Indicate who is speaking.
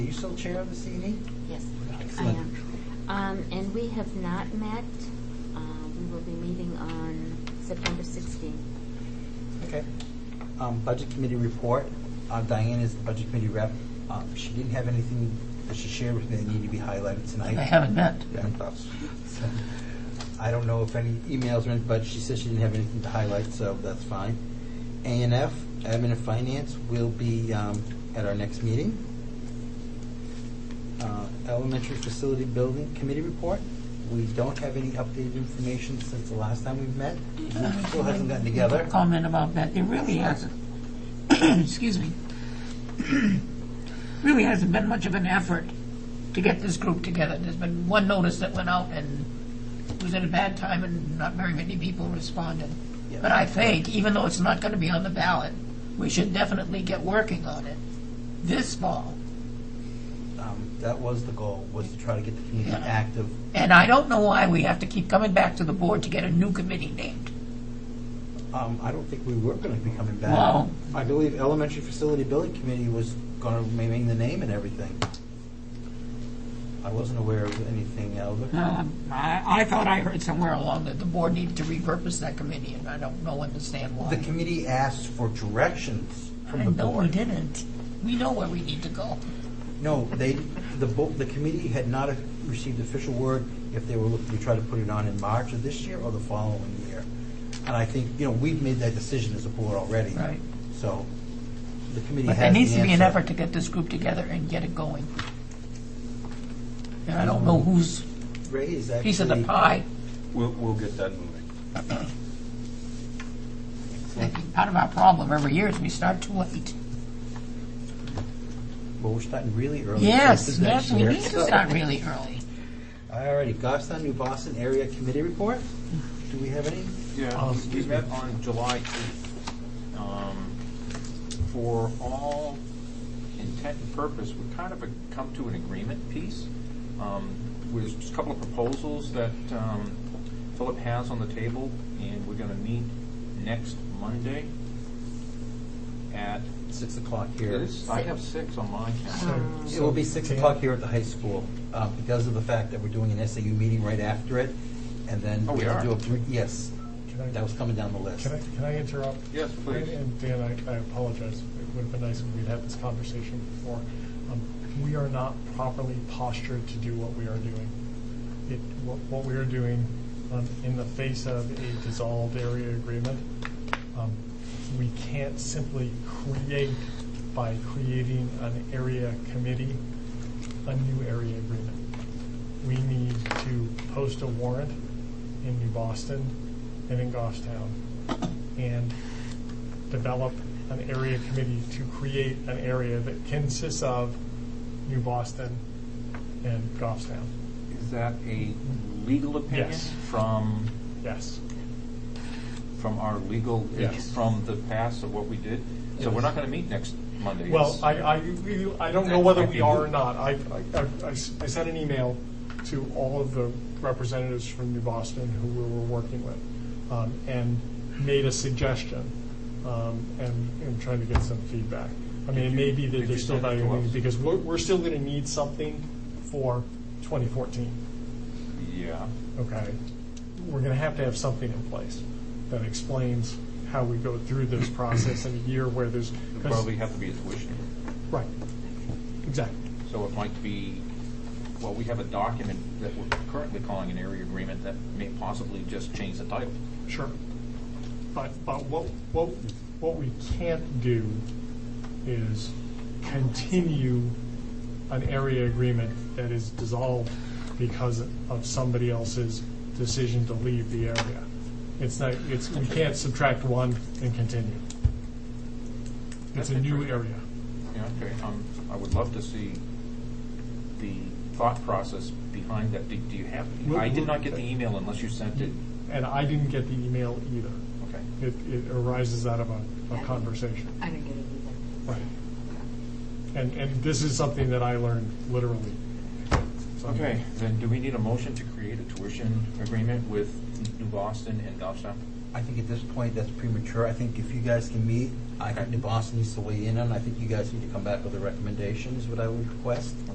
Speaker 1: you still chair of the E CNE?
Speaker 2: Yes, I
Speaker 1: Excellent.
Speaker 2: am. Um, And we have not met. Uh, We will be meeting on September 16th.
Speaker 1: Okay. Um, Budget Committee report. Uh, Diane is the Budget Committee rep. Uh, She didn't have anything that she shared with me that needed to be highlighted tonight.
Speaker 3: I haven't met.
Speaker 1: Yeah, I thought so. So, I don't know if any emails or anything, but she said she didn't have anything to highlight, so that's fine. A and F, Admin and Finance, will be um, at our next meeting. Uh, Elementary Facility Building Committee Report. We don't have any updated information since the last time we've met.
Speaker 3: Mm-hmm.
Speaker 1: It Still hasn't gotten together.
Speaker 3: Comment about that, it really hasn't, excuse me, really hasn't been much of an effort to get this group together. There's been one notice that went out and it was at a bad time and not very many people responded.
Speaker 1: Yeah.
Speaker 3: But I think, even though it's not going to be on the ballot, we should definitely get working on it this fall.
Speaker 1: Um, That was the goal, was to try to get the community
Speaker 3: Yeah.
Speaker 1: active.
Speaker 3: And I don't know why we have to keep coming back to the board to get a new committee named.
Speaker 1: Um, I don't think we were going to be coming back.
Speaker 3: Wow.
Speaker 1: I believe Elementary Facility Building Committee was going to remain the name and everything. I wasn't aware of anything else.
Speaker 3: Um, I, I thought I heard somewhere along that the board needed to repurpose that committee, and I don't know, understand
Speaker 1: The
Speaker 3: why.
Speaker 1: committee asked for directions from the
Speaker 3: And no, we
Speaker 1: board.
Speaker 3: didn't. We know where we need to go.
Speaker 1: No, they, the, bo- the committee had not received official word if they were looking to try to put it on in March of this year or the following year. And I think, you know, we've made that decision as a board already.
Speaker 3: Right.
Speaker 1: So the committee has
Speaker 3: But
Speaker 1: the
Speaker 3: there needs to be
Speaker 1: answer.
Speaker 3: an effort to get this group together and get it going. And I don't know whose
Speaker 1: Ray's actually.
Speaker 3: piece of the pie,
Speaker 4: We'll, we'll get that moving.
Speaker 3: I think part of our problem every year is we start too
Speaker 1: Oh,
Speaker 3: late.
Speaker 1: Well, we're starting really early.
Speaker 3: Yes,
Speaker 1: This is next
Speaker 3: yes, we
Speaker 1: year.
Speaker 3: need to start really early.
Speaker 1: All righty, Goffstown, New Boston Area Committee Report. Do we have any?
Speaker 4: Yeah,
Speaker 1: Oh,
Speaker 4: we- we
Speaker 1: excuse me.
Speaker 4: met on July 8th. Um, For all intent and purpose, we kind of come to an agreement piece. Um, There's just a couple of proposals that um, Philip has on the table, and we're going to meet next Monday at,
Speaker 1: Six o'clock here.
Speaker 4: is- I have six on my calendar.
Speaker 2: Um,
Speaker 1: It will be six o'clock here at the high school uh, because of the fact that we're doing an SAU meeting right after it. And then.
Speaker 4: Oh, we
Speaker 1: we'll
Speaker 4: are?
Speaker 1: do a brief- Yes,
Speaker 5: Can I-
Speaker 1: that was coming down the list.
Speaker 5: Can I, can I interrupt?
Speaker 4: Yes, please.
Speaker 5: And- And Dan, I, I apologize. It would have been nice if we'd had this conversation before. Um, We are not properly postured to do what we are doing. It, what, what we are doing, um, in the face of a dissolved area agreement, um, we can't simply create, by creating an area committee, a new area agreement we need to post a warrant in New Boston and in Goffstown and develop an area committee to create an area that consists of New Boston and Goffstown.
Speaker 4: Is that a legal opinion
Speaker 5: Yes.
Speaker 4: from,
Speaker 5: Yes.
Speaker 4: from our legal,
Speaker 5: Yes.
Speaker 4: from the past of what we did? So we're not going to meet next Monday.
Speaker 5: Well,
Speaker 4: It's-
Speaker 5: I, I, we- I don't know whether we are or not. I, I- I- I s- I sent an email to all of the representatives from New Boston who we were working with um, and made a suggestion um, and, and trying to get some feedback. I mean, it may be that
Speaker 4: Did you
Speaker 5: they're still
Speaker 4: send it to
Speaker 5: evaluating
Speaker 4: us?
Speaker 5: because we're, we're still going to need something for 2014
Speaker 4: Yeah.
Speaker 5: okay, we're going to have to have something in place that explains how we go through this process in a year where there's.
Speaker 4: It'd probably have to be a tuition.
Speaker 5: Right, exactly.
Speaker 4: So it might be, well, we have a document that we're currently calling an area agreement that may possibly just change the title.
Speaker 5: Sure. But, but what, what, what we can't do is continue an area agreement that is dissolved because of somebody else's decision to leave the area. It's not, it's, we can't subtract one and continue. It's a new area.
Speaker 4: Yeah, okay, um, I would love to see the thought process behind that. Do do you have,
Speaker 5: We'll-
Speaker 4: I did
Speaker 5: we'll-
Speaker 4: not get the email unless you sent it.
Speaker 5: And I didn't get the email either.
Speaker 4: Okay.
Speaker 5: It, it arises out of a, a conversation.
Speaker 2: I don't get it either.
Speaker 5: Right. And, and this is something that I learned literally. So-
Speaker 4: Okay, then do we need a motion to create a tuition agreement with New Boston and Goffstown?
Speaker 1: I think at this point, that's premature. I think if you guys can meet, I think New Boston needs to weigh in on, it. I think you guys need to come back with the recommendations, what I would request.